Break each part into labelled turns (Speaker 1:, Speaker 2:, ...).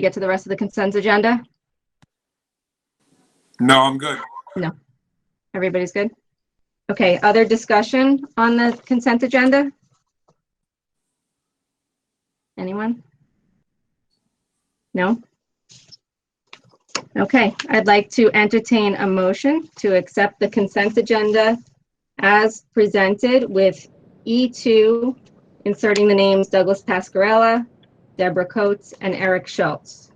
Speaker 1: get to the rest of the consent agenda?
Speaker 2: No, I'm good.
Speaker 1: Everybody's good? Okay, other discussion on the consent agenda? Anyone? No? Okay, I'd like to entertain a motion to accept the consent agenda as presented with E2, inserting the names Douglas Pascarella, Deborah Coates, and Eric Schultz.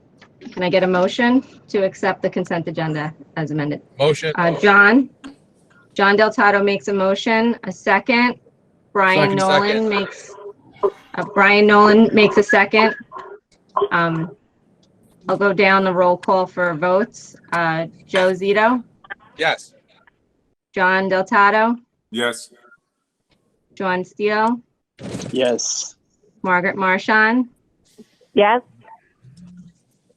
Speaker 1: Can I get a motion to accept the consent agenda as amended?
Speaker 3: Motion.
Speaker 1: Uh, John? John Del Tato makes a motion, a second. Brian
Speaker 3: Second,
Speaker 1: Nolan
Speaker 3: second.
Speaker 1: makes, uh, Brian Nolan makes a second. Um, I'll go down the roll call for votes. Uh, Joe Zito,
Speaker 3: Yes.
Speaker 1: John Del Tato,
Speaker 2: Yes.
Speaker 1: John Steele,
Speaker 4: Yes.
Speaker 1: Margaret Marshon,
Speaker 5: Yes.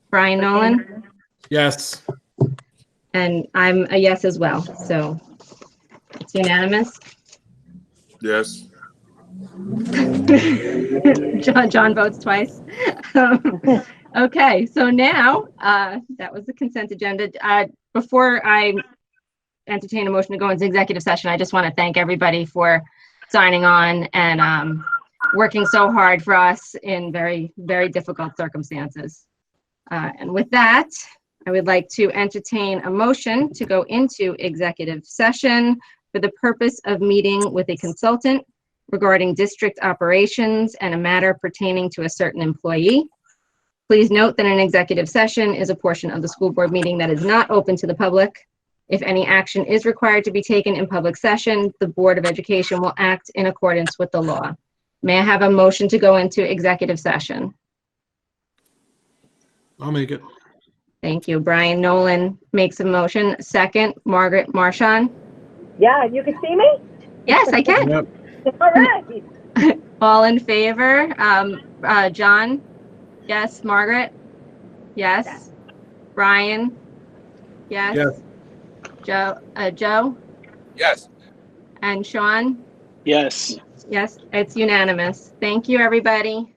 Speaker 1: Brian Nolan.
Speaker 6: Yes.
Speaker 1: And I'm a yes as well, so it's unanimous.
Speaker 2: Yes.
Speaker 1: John, John votes twice. Um, Okay, so now, uh, that was the consent agenda. Uh, Before I entertain a motion to go into executive session, I just want to thank everybody for signing on and um, working so hard for us in very, very difficult circumstances. Uh, And with that, I would like to entertain a motion to go into executive session for the purpose of meeting with a consultant regarding district operations and a matter pertaining to a certain employee. Please note that an executive session is a portion of the school board meeting that is not open to the public. If any action is required to be taken in public session, the Board of Education will act in accordance with the law. May I have a motion to go into executive session?
Speaker 6: I'll make it.
Speaker 1: Thank you. Brian Nolan makes a motion. Second, Margaret Marshon.
Speaker 5: Yeah, you can see me?
Speaker 1: Yes, I can.
Speaker 6: Yep.
Speaker 5: All right.
Speaker 1: All in favor? Um, uh, John? Yes. Margaret? Yes. Brian? Yes.
Speaker 6: Yes.
Speaker 1: Joe, uh, Joe
Speaker 3: Yes.
Speaker 1: and Sean?
Speaker 4: Yes.
Speaker 1: Yes, it's unanimous. Thank you, everybody.